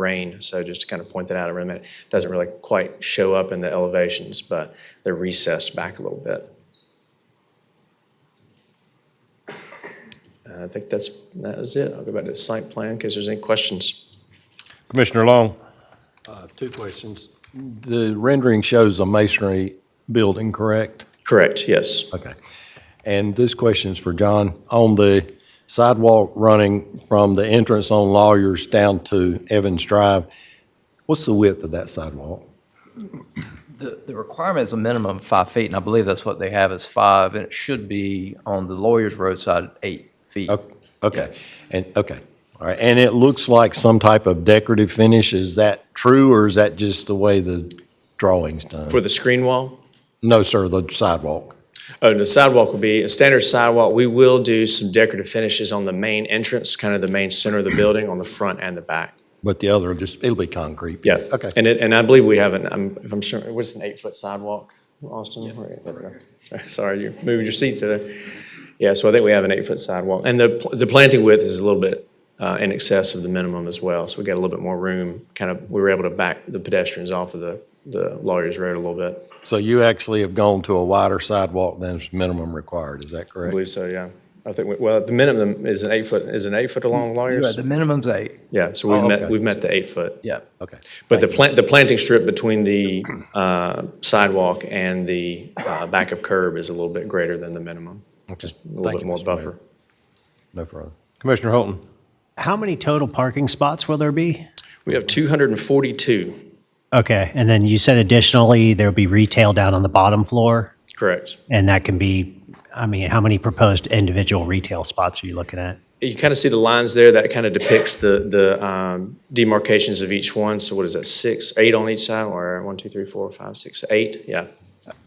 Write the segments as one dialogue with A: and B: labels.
A: rain. So just to kind of point that out, I mean, it doesn't really quite show up in the elevations, but they're recessed back a little bit. Uh, I think that's, that is it. I'll go back to the site plan in case there's any questions.
B: Commissioner Long,
C: Uh, Two questions. The rendering shows a masonry building, correct?
A: Correct, yes.
C: Okay. And this question is for John. On the sidewalk running from the entrance on Lawyers down to Evans Drive, what's the width of that sidewalk?
D: The, the requirement is a minimum of five feet, and I believe that's what they have is five, and it should be on the lawyer's roadside, eight feet.
C: O- Okay, and, okay, all right. And it looks like some type of decorative finish. Is that true, or is that just the way the drawing's done?
A: For the screen wall,
C: No, sir, the sidewalk.
A: Oh, the sidewalk will be a standard sidewalk. We will do some decorative finishes on the main entrance, kind of the main center of the building, on the front and the back.
C: But the other, just, it'll be concrete.
A: Yeah.
C: Okay.
A: And it, and I believe we have an, I'm, if I'm sure, what's an eight-foot sidewalk, Austin? Right, there we go. Sorry, you're moving your seats there. Yeah, so I think we have an eight-foot sidewalk. And the, pl- the planting width is a little bit uh, in excess of the minimum as well. So we got a little bit more room, kind of, we were able to back the pedestrians off of the, the lawyer's road a little bit.
C: So you actually have gone to a wider sidewalk than is minimum required, is that
A: I
C: correct?
A: believe so, yeah. I think, we- well, the minimum is an eight-foot, is an eight-foot along
D: Yeah,
A: lawyers?
D: the minimum's eight,
A: Yeah, so we've
C: Oh,
A: met,
C: okay.
A: we've met the eight-foot.
D: yeah.
C: Okay.
A: But the plant, the planting strip between the uh, sidewalk and the uh, back of curb is a little bit greater than the minimum.
C: Just a
A: A little bit more buffer.
C: No further.
B: Commissioner Holton,
E: How many total parking spots will there be?
A: We have 242,
E: Okay, and then you said additionally, there'll be retail down on the bottom floor,
A: correct.
E: and that can be, I mean, how many proposed individual retail spots are you looking at?
A: You kind of see the lines there, that kind of depicts the, the um, demarcations of each one. So what is that, six, eight on each side, or one, two, three, four, five, six, eight? Yeah.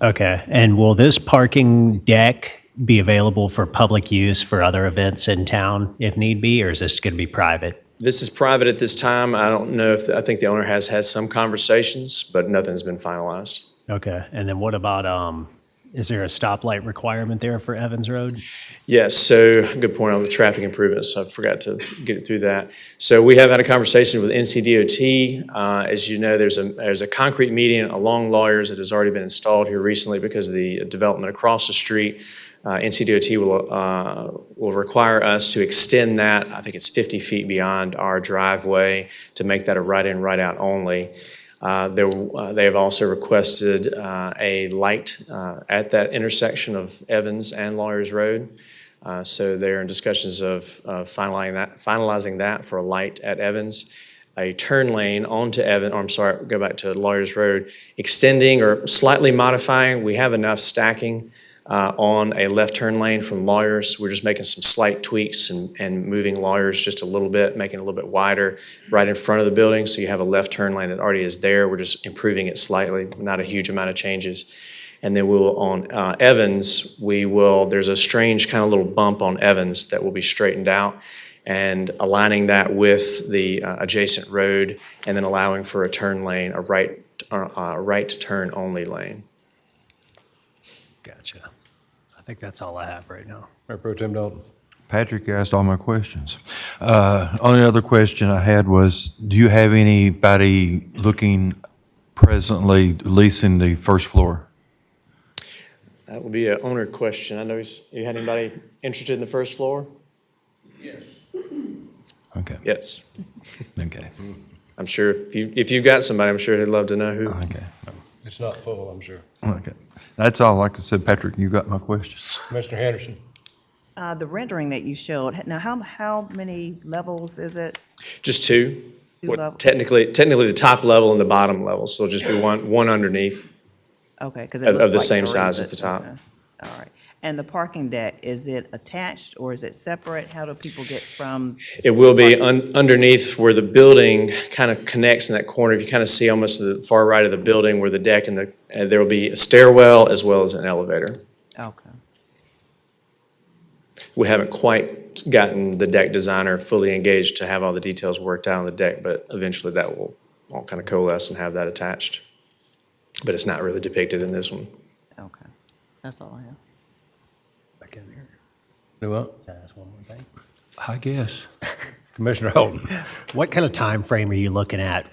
E: Okay, and will this parking deck be available for public use for other events in town if need be, or is this going to be private?
A: This is private at this time. I don't know if, I think the owner has had some conversations, but nothing's been finalized.
E: Okay, and then what about, um, is there a stoplight requirement there for Evans Road?
A: Yes, so, good point on the traffic improvements, I forgot to get it through that. So we have had a conversation with NCDOT. Uh, As you know, there's a, there's a concrete median along Lawyers that has already been installed here recently because of the development across the street. Uh, NCDOT will, uh, will require us to extend that, I think it's 50 feet beyond our driveway to make that a right-in, right-out only. Uh, There, uh, they have also requested uh, a light uh, at that intersection of Evans and Lawyers Road. Uh, So they're in discussions of of finalizing that, finalizing that for a light at Evans, a turn lane onto Evans, or I'm sorry, go back to Lawyers Road, extending or slightly modifying. We have enough stacking uh, on a left turn lane from Lawyers. We're just making some slight tweaks and, and moving Lawyers just a little bit, making it a little bit wider right in front of the building. So you have a left turn lane that already is there. We're just improving it slightly, not a huge amount of changes. And then we'll, on uh, Evans, we will, there's a strange kind of little bump on Evans that will be straightened out and aligning that with the uh, adjacent road and then allowing for a turn lane, a right, uh, a right turn only lane.
E: Gotcha. I think that's all I have right now.
B: Mayor Pro Tim Dalton.
F: Patrick asked all my questions. Uh, Only other question I had was, do you have anybody looking presently leasing the first floor?
A: That would be an owner question. I know he's- you had anybody interested in the first floor?
F: Okay,
A: Yes.
F: okay,
A: I'm sure if you, if you've got somebody, I'm sure he'd love to know who.
F: okay,
B: It's not full, I'm sure.
F: okay. That's all. Like I said, Patrick, you got my questions.
B: Commissioner Henderson.
G: Uh, The rendering that you showed, now how, how many levels is it?
A: Just two?
G: Two
A: What-
G: level-
A: Technically, technically the top level and the bottom level, so there'll just be one, one underneath.
G: Okay, because
A: Of-
G: it
A: of
G: looks like.
A: the same
G: three,
A: size as
G: but-
A: the top.
G: okay. All right. And the parking deck, is it attached or is it separate? How do people get from,
A: It will be un- underneath where the building kind of connects in that corner. If you kind of see almost the far right of the building where the deck and the, and there will be a stairwell as well as an elevator.
G: okay,
A: We haven't quite gotten the deck designer fully engaged to have all the details worked out on the deck, but eventually that will all kind of coalesce and have that attached. But it's not really depicted in this one.
G: okay. That's all I have.
E: Back in there.
F: Do what?
E: Can I ask one more thing?
F: I guess.
B: Commissioner Holton.
E: What kind of time frame are you looking at